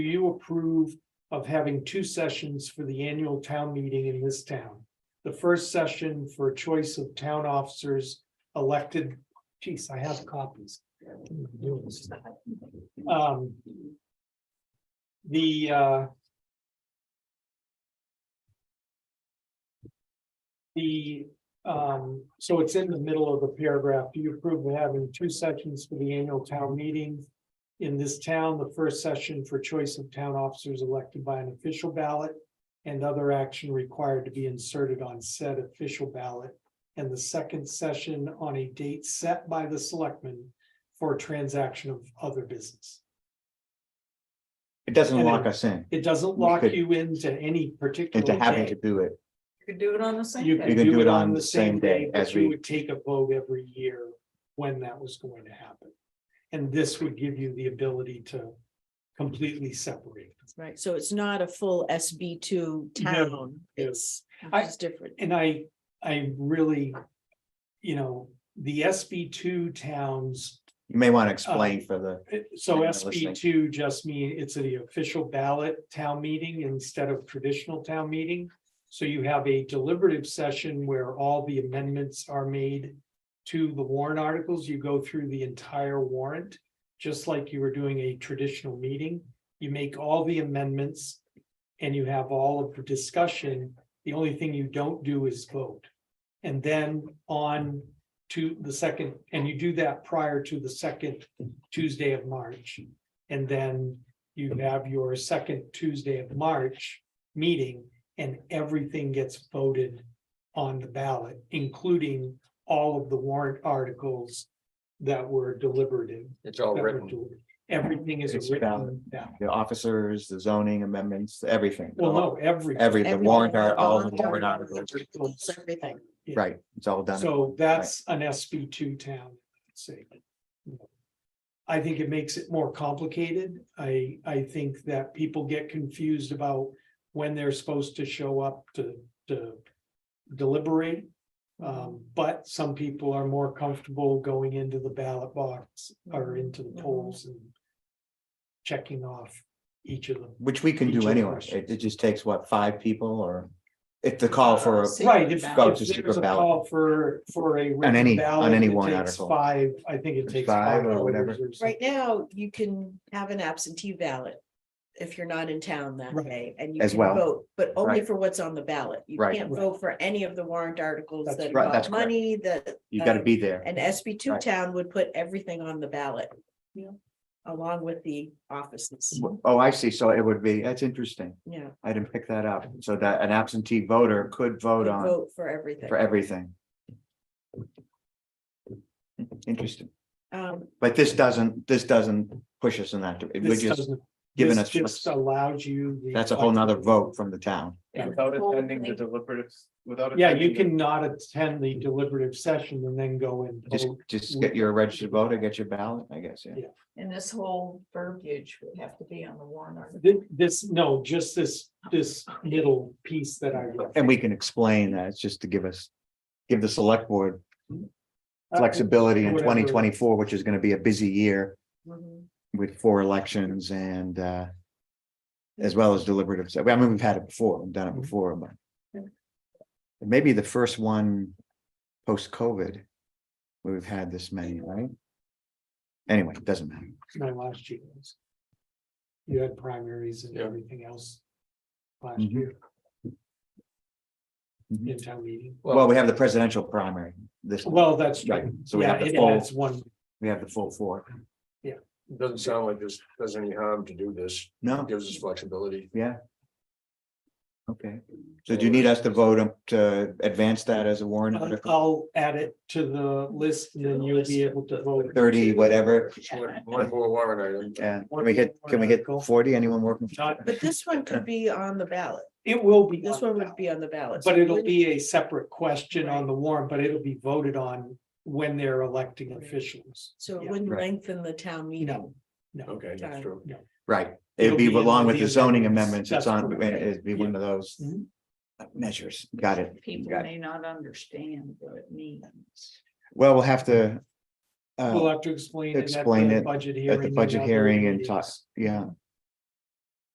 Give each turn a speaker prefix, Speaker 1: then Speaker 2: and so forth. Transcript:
Speaker 1: Do you approve of having two sessions for the annual town meeting in this town? The first session for choice of town officers elected, geez, I have copies. Um, The uh, The, um, so it's in the middle of the paragraph. Do you approve of having two sessions for the annual town meeting? in this town, the first session for choice of town officers elected by an official ballot and other action required to be inserted on said official ballot, and the second session on a date set by the selectmen for transaction of other business.
Speaker 2: It doesn't
Speaker 1: And
Speaker 2: lock
Speaker 1: then-
Speaker 2: us in
Speaker 1: It doesn't
Speaker 2: We
Speaker 1: lock
Speaker 2: could-
Speaker 1: you into any particular
Speaker 2: into having
Speaker 1: day.
Speaker 2: to do it.
Speaker 3: You could do it on the same
Speaker 1: You
Speaker 3: day.
Speaker 1: could do it on the same day,
Speaker 2: as
Speaker 1: but you
Speaker 2: we-
Speaker 1: would take a vote every year when that was going to happen. And this would give you the ability to completely separate.
Speaker 4: Right, so it's not a full SB two
Speaker 1: No,
Speaker 4: town,
Speaker 1: no.
Speaker 4: it's,
Speaker 1: I-
Speaker 4: it's different.
Speaker 1: and I, I really, you know, the SB two towns,
Speaker 2: You may
Speaker 1: Oh.
Speaker 2: want to explain for the,
Speaker 1: so
Speaker 2: Yeah,
Speaker 1: SB two just mean it's the official ballot town meeting instead of traditional town meeting. So you have a deliberative session where all the amendments are made to the warrant articles. You go through the entire warrant, just like you were doing a traditional meeting. You make all the amendments and you have all of the discussion. The only thing you don't do is vote. And then on to the second, and you do that prior to the second Tuesday of March. And then you have your second Tuesday of March meeting and everything gets voted on the ballot, including all of the warrant articles that were deliberative.
Speaker 5: It's all
Speaker 1: that were
Speaker 5: written.
Speaker 1: delivered. Everything is
Speaker 2: It's
Speaker 1: written
Speaker 2: valid.
Speaker 1: down.
Speaker 2: the officers, the zoning amendments, everything.
Speaker 1: Well, no, every.
Speaker 2: Every, the
Speaker 4: Everything,
Speaker 2: warrant,
Speaker 4: the
Speaker 2: are all the
Speaker 4: warrant
Speaker 2: warrant
Speaker 4: articles.
Speaker 2: articles,
Speaker 4: It's Everything,
Speaker 1: Yeah.
Speaker 2: right, it's all done.
Speaker 1: So that's an SB two town, I'd say. I think it makes it more complicated. I, I think that people get confused about when they're supposed to show up to, to deliberate. Um, but some people are more comfortable going into the ballot box or into the polls and checking off each of them.
Speaker 2: Which we can
Speaker 1: Each of
Speaker 2: do
Speaker 1: the
Speaker 2: anyway.
Speaker 1: questions.
Speaker 2: It, it just takes what, five people or if the call for,
Speaker 4: Six.
Speaker 1: Right, if
Speaker 4: Ballot.
Speaker 2: Go to
Speaker 1: if there's
Speaker 2: secret
Speaker 1: a
Speaker 2: ballot.
Speaker 1: call for, for a.
Speaker 2: On
Speaker 1: written
Speaker 2: any-
Speaker 1: ballot,
Speaker 2: on any
Speaker 1: it
Speaker 2: warrant
Speaker 1: takes
Speaker 2: article.
Speaker 1: Five, I think it takes.
Speaker 2: Five or
Speaker 1: voters
Speaker 2: whatever.
Speaker 1: something.
Speaker 4: right now, you can have an absentee ballot if you're not in town that
Speaker 1: Right.
Speaker 4: day and you
Speaker 2: As
Speaker 4: can
Speaker 2: well.
Speaker 4: vote, but only
Speaker 2: Right.
Speaker 4: for what's on the ballot. You
Speaker 2: Right.
Speaker 4: can't
Speaker 1: Right.
Speaker 4: vote for any of the warrant articles
Speaker 1: That's
Speaker 4: that
Speaker 2: right, that's
Speaker 4: involve
Speaker 2: correct.
Speaker 4: money, the.
Speaker 2: you gotta
Speaker 4: um,
Speaker 2: be there.
Speaker 4: An SB two
Speaker 2: Right.
Speaker 4: town would put everything on the ballot.
Speaker 3: Yeah.
Speaker 4: Along with the offices,
Speaker 2: Oh, I see. So it would be, that's interesting.
Speaker 4: yeah,
Speaker 2: I didn't pick that up. So that an absentee voter could vote
Speaker 4: would
Speaker 2: on
Speaker 4: vote for everything.
Speaker 2: for everything. Interesting.
Speaker 4: Um,
Speaker 2: But this doesn't, this doesn't push us in that, dir- we're
Speaker 1: This
Speaker 2: just
Speaker 1: doesn't,
Speaker 2: giving
Speaker 1: this
Speaker 2: us,
Speaker 1: just allows you. the-
Speaker 2: that's a whole nother vote from the town.
Speaker 3: Yeah.
Speaker 5: Without
Speaker 3: Well,
Speaker 5: attending the
Speaker 3: like-
Speaker 5: deliberative, without.
Speaker 1: Yeah, you
Speaker 5: attending the-
Speaker 1: can not attend the deliberative session and then go and
Speaker 2: Just,
Speaker 1: vote.
Speaker 2: just get your registered voter, get your ballot, I guess, yeah.
Speaker 1: Yeah.
Speaker 3: And this whole verbiage would have to be on the warrant article.
Speaker 1: Thi- This, no, just this, this little piece that I.
Speaker 2: And we can explain that, it's just to give us, give the select board
Speaker 1: Uh,
Speaker 2: flexibility in
Speaker 1: Whatever.
Speaker 2: twenty twenty-four, which is gonna be a busy year
Speaker 3: Mm-hmm.
Speaker 4: mhm.
Speaker 2: with four elections and, uh, as well as deliberative, so, I mean, we've had it before, we've done it
Speaker 1: Mhm.
Speaker 2: before, but
Speaker 3: Yeah.
Speaker 2: maybe the first one post-COVID, where we've had this many, right? Anyway, it doesn't matter.
Speaker 1: My last year was. You had primaries and
Speaker 5: Yeah.
Speaker 1: everything else. Last
Speaker 2: Mhm.
Speaker 1: year
Speaker 2: Mhm.
Speaker 1: in town meeting.
Speaker 2: Well, we have the presidential primary this,
Speaker 1: Well, that's
Speaker 2: right,
Speaker 1: right.
Speaker 2: so we
Speaker 1: Yeah,
Speaker 2: have the
Speaker 1: it
Speaker 2: full,
Speaker 1: adds one.
Speaker 2: we have the full four.
Speaker 5: It Doesn't sound like this does any harm to do this.
Speaker 2: No,
Speaker 5: It Gives us flexibility.
Speaker 2: yeah. Okay, so do you need us to vote um, to advance that as a warrant
Speaker 1: Uh,
Speaker 2: article?
Speaker 1: I'll add it to the list and then you'll be able to vote.
Speaker 2: Thirty, whatever,
Speaker 5: One one more warrant item.
Speaker 2: and can we hit, can we hit forty, anyone working?
Speaker 1: Not-
Speaker 4: But this one could be on the ballot.
Speaker 1: It will be.
Speaker 4: This
Speaker 1: on
Speaker 4: one
Speaker 1: the
Speaker 4: would be on the ballot.
Speaker 1: But
Speaker 4: so
Speaker 1: it'll
Speaker 4: when-
Speaker 1: be a separate question on the warrant, but it'll be voted on when they're electing officials.
Speaker 4: So it
Speaker 1: yeah,
Speaker 4: wouldn't
Speaker 2: right.
Speaker 4: lengthen the town meeting.
Speaker 1: No, no.
Speaker 5: Okay, that's true.
Speaker 2: Right,
Speaker 1: It'll
Speaker 2: it'd be
Speaker 1: be in
Speaker 2: along
Speaker 1: the
Speaker 2: with the zoning
Speaker 1: amendments,
Speaker 2: amendments, it's
Speaker 1: that's
Speaker 2: on,
Speaker 1: correct.
Speaker 2: it'd be one of those
Speaker 1: Mhm.
Speaker 2: measures, got it.
Speaker 3: People
Speaker 2: Got it.
Speaker 3: may not understand what it means.
Speaker 2: Well, we'll have to. uh,
Speaker 1: We'll have to explain. it at
Speaker 2: Explain
Speaker 1: the
Speaker 2: it
Speaker 1: Budget hearing.
Speaker 2: at the
Speaker 1: and
Speaker 2: budget
Speaker 1: other
Speaker 2: hearing and
Speaker 1: meetings.
Speaker 2: talk, yeah,